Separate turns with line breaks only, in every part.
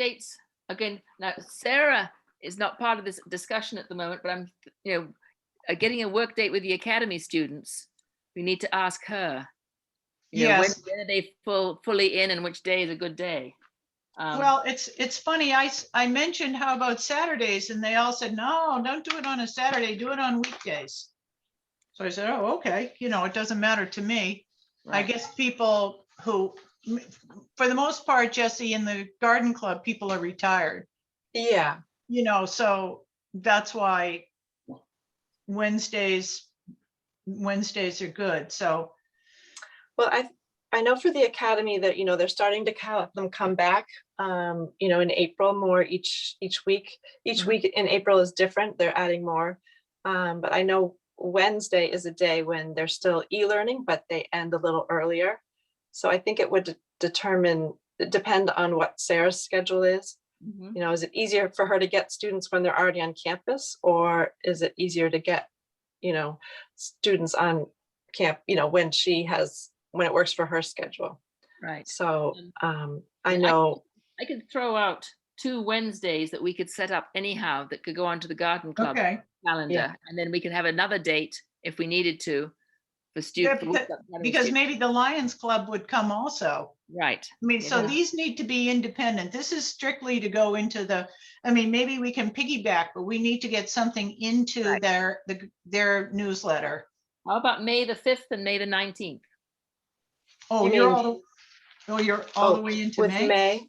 updates, again, now Sarah is not part of this discussion at the moment, but I'm, you know, uh, getting a work date with the academy students, we need to ask her. you know, when-
Yes.
When are they full, fully in and which day is a good day? Um,
Well, it's, it's funny, I, s- I mentioned how about Saturdays and they all said, no, don't do it on a Saturday, do it on weekdays. So I said, oh, okay, you know, it doesn't matter to me. I
right.
guess people who, for the most part, Jesse, in the garden club, people are retired,
Yeah,
you know, so that's why Wednesdays, Wednesdays are good, so,
well, I, I know for the academy that, you know, they're starting to have them come back, um, you know, in April more each, each week. Each
Mhm.
week in April is different, they're adding more. Um, but I know Wednesday is a day when they're still e-learning, but they end a little earlier. So I think it would de- determine, depend on what Sarah's schedule is.
Mhm.
You know, is it easier for her to get students when they're already on campus, or is it easier to get, you know, students on camp, you know, when she has, when it works for her schedule?
Right.
So um, I
I-
know,
I could throw out two Wednesdays that we could set up anyhow that could go onto the garden club
okay.
calendar. And then we can have another date if we needed to for
Yeah,
students.
Because maybe the Lions Club would come also.
Right,
I mean, so
Yeah.
these need to be independent. This is strictly to go into the, I mean, maybe we can piggyback, but we need to get something into
Right.
their, the- their newsletter.
how about May the fifth and May the nineteenth?
Oh,
You
you're
mean-
all, oh, you're all the
Oh,
way into
with
May?
May.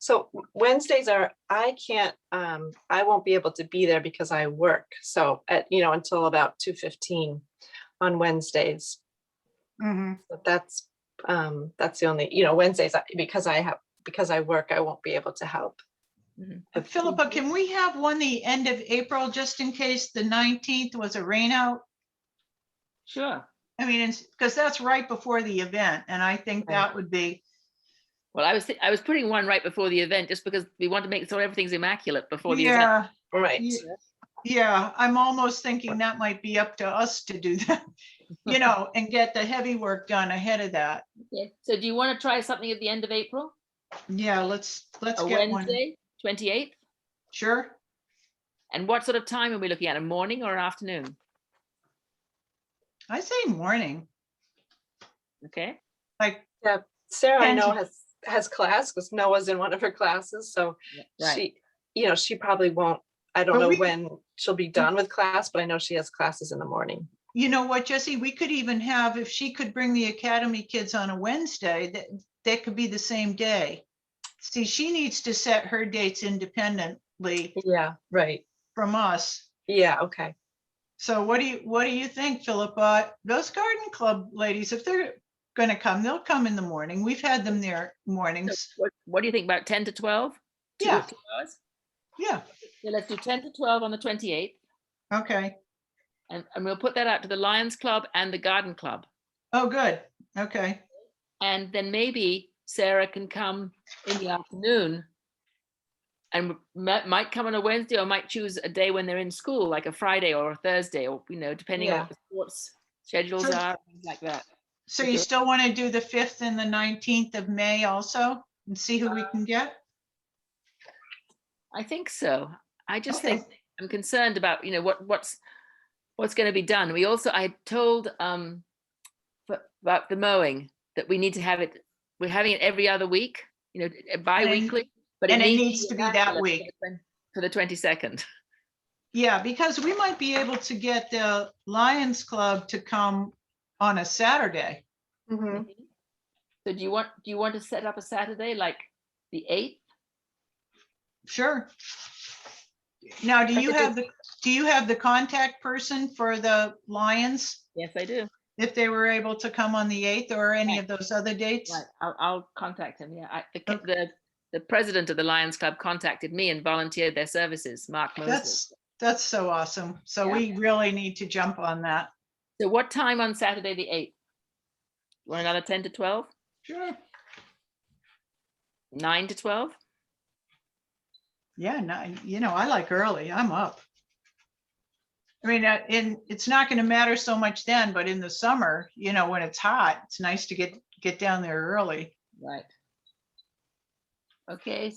So Wednesdays are, I can't, um, I won't be able to be there because I work. So at, you know, until about two fifteen on Wednesdays.
Mhm.
But that's, um, that's the only, you know, Wednesdays, I- because I have, because I work, I won't be able to help.
Mhm.
If-
Philippa, can we have one the end of April, just in case the nineteenth was a rainout?
Sure.
I mean, it's, because that's right before the event, and I think
Right.
that would be,
Well, I was, thi- I was putting one right before the event just because we want to make so everything's immaculate before the event.
yeah,
Right,
Yeah. yeah, I'm almost thinking that might be up to us to do that. You know, and get the heavy work done ahead of that.
Okay. So do you want to try something at the end of April?
Yeah, let's, let's
A
get one.
Wednesday, twenty-eighth?
Sure.
And what sort of time are we looking at? A morning or an afternoon?
I say morning,
Okay,
like,
Sarah, I
And-
know has, has class, because Noah's in one of her classes, so
right,
she, you know, she probably won't,
But
I don't know
we- Mm-hmm.
when she'll be done with class, but I know she has classes in the morning.
you know what, Jesse, we could even have, if she could bring the academy kids on a Wednesday, that, that could be the same day. See, she needs to set her dates independently
Yeah, right.
from us.
Yeah, okay.
So what do you, what do you think, Philippa? Those garden club ladies, if they're gonna come, they'll come in the morning. We've had them there mornings.
what, what do you think about ten to twelve? Two-
Yeah.
two hours?
Yeah,
So let's do ten to twelve on the twenty-eighth,
okay.
and, and we'll put that out to the Lions Club and the Garden Club.
Oh, good. Okay.
And then maybe Sarah can come in the afternoon. And mi- might come on a Wednesday or might choose a day when they're in school, like a Friday or a Thursday, or, you know, depending on
Yeah.
what the sports schedules
So-
are, things like that.
So you
Okay.
still want to do the fifth and the nineteenth of May also and see who we can get?
I think so. I just
Okay.
think, I'm concerned about, you know, what, what's, what's going to be done. We also, I had told, um, f- about the mowing, that we need to have it, we're having it every other week, you know, eh, bi-weekly. but
and it needs to be that
immaculate for
week.
the twen- For the twenty-second.
Yeah, because we might be able to get the Lions Club to come on a Saturday. Mm-hmm.
Mhm.
So do you want, do you want to set up a Saturday, like the eighth?
Sure. Now, do
I
you
could do-
have the, do you have the contact person for the Lions?
Yes, I do.
If they were able to come on the eighth or any
Right.
of those other dates?
Right, I'll, I'll contact him, yeah. I, the, ca-
Okay.
the, the president of the Lions Club contacted me and volunteered their services, Mark Mosley.
That's, that's so awesome. So
Yeah.
we really need to jump on that.
So what time on Saturday, the eighth? You want another ten to twelve?
Sure.
Nine to twelve?
Yeah, nine, you know, I like early, I'm up. I mean, uh, in, it's not gonna matter so much then, but in the summer, you know, when it's hot, it's nice to get, get down there early.
Right. Okay,